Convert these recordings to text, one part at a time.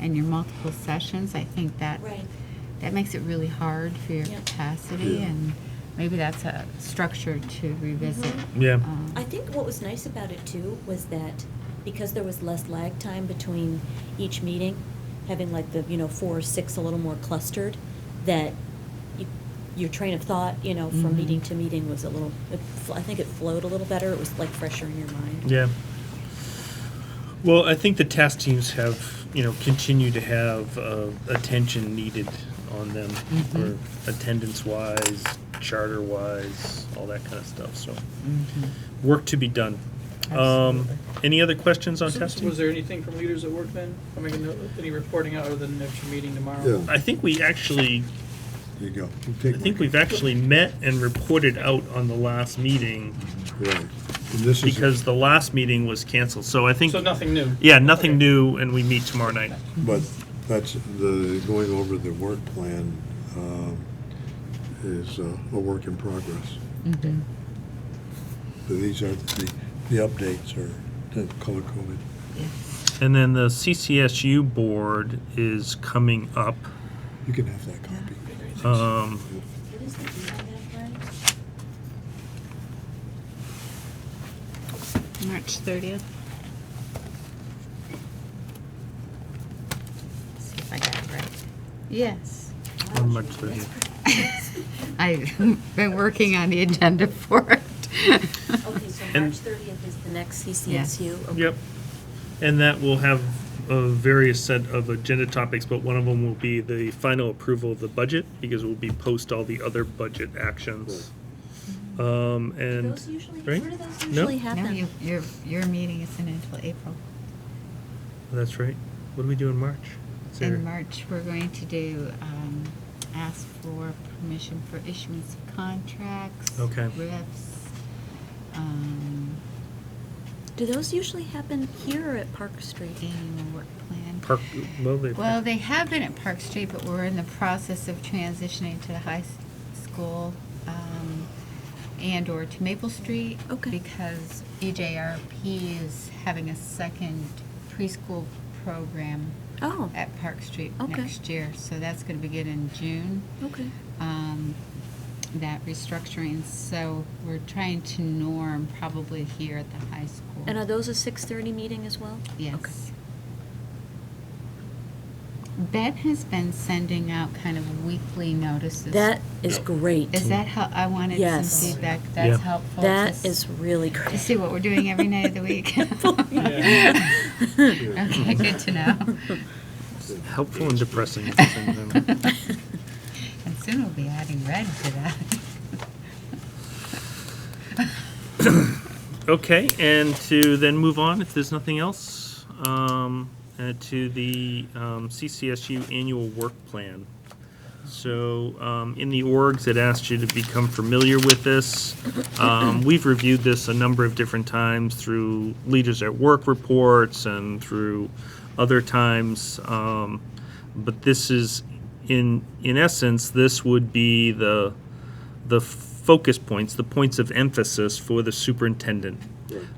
and your multiple sessions, I think that, Right. that makes it really hard for your Yeah. capacity, Yeah. and maybe that's a structure to revisit. Yeah. Um, Mm-hmm. I think what was nice about it too was that because there was less lag time between each meeting, having like the, you know, four or six a little more clustered, that you, your train of thought, you know, from Mm-hmm. Mhm. meeting to meeting was a little, it, fl- I think it flowed a little better. It was like fresher in your mind. Yeah. Well, I think the task teams have, you know, continue to have uh, attention needed on them, Mhm. or attendance wise, charter wise, all that kind of stuff. So, mhm. work to be done. Um, Absolutely. any other questions on So- testing? Was there anything from leaders at work then? I mean, no- any reporting out other than next meeting tomorrow? Yeah. I think we actually, There you go. I think we've actually met and reported out on the last meeting Right. And this is, because the last meeting was canceled. So I think, So nothing new? yeah, nothing new, and we meet tomorrow night. but that's the, going over the work plan um, is uh, a work in progress. Mhm. But these are, the, the updates are the color coded. And then the CCSU board is coming up. You can have that copy. Um, March 30th. See if I got it right. Yes. on March 30th. I've been working on the agenda for Oh, it. Okay, so And- March 30th is the next CCSU? Yep. And that will have a various set of agenda topics, but one of them will be the final approval of the budget because we'll be post all the other budget actions. Um, and, Mm-hmm. Those usually, right? where do those No. usually No, happen? you- your, your meeting isn't until April. that's right. What do we do in March? Is there- In March, we're going to do, um, ask for permission for issuance of contracts. Okay. RIFs. um, Do those usually happen here or at Park Street? annual work plan. Park, well, they. Well, they have been at Park Street, but we're in the process of transitioning to the high s- school um, and/or to Maple Street. Okay. Because E EJRP is having a second preschool program Oh, at Park Street Okay. Oh, next year. So that's going to begin in June, okay. um, that restructuring. So we're trying to norm probably here at the high school. And are those a 6:30 meeting as well? Okay. Yes. Ben has been sending out kind of weekly notices. That is great. Is that how, I wanted some Yes. feedback, that's Yeah. helpful. to That s- is really great. To see what we're doing every night of the week. Yeah. Okay, good to know. Helpful and depressing at the same time. And soon we'll be adding red to that. Okay, and to then move on, if there's nothing else, um, uh, to the um, CCSU annual work plan. So um, in the orgs, it asked you to become familiar with this. Um, We've reviewed this a number of different times through Leaders at Work reports and through other times. um, But this is, in, in essence, this would be the, the focus points, the points of emphasis for the superintendent.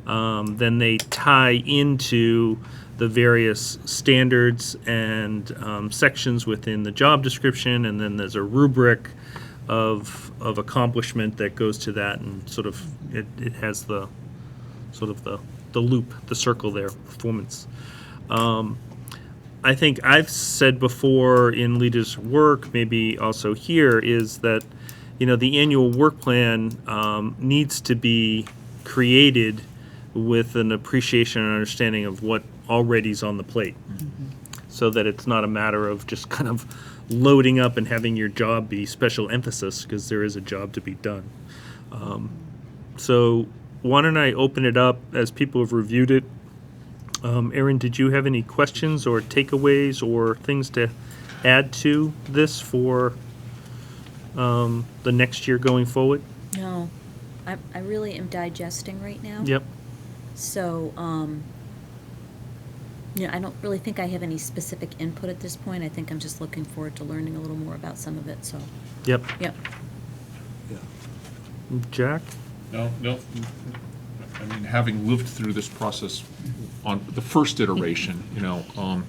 Um, then they tie into the various standards and um, sections within the job description, and then there's a rubric of of accomplishment that goes to that, and sort of it, it has the sort of the the loop, the circle there, performance. I think I've said before in leaders' work, maybe also here, is that you know the annual work plan um, needs to be created with an appreciation and understanding of what already's on the plate, so that it's not a matter of just kind of loading up and having your job be special emphasis because there is a job to be done. Um, so why don't I open it up as people have reviewed it? Um, Aaron, did you have any questions or takeaways or things to add to this for um, the next year going forward? No, I, I really am digesting right now. Yep. So, um, you know, I don't really think I have any specific input at this point. I think I'm just looking forward to learning a little more about some of it, so, Yep. yep. Jack? No, no. I mean, having lived through this process on the first iteration, you know, um,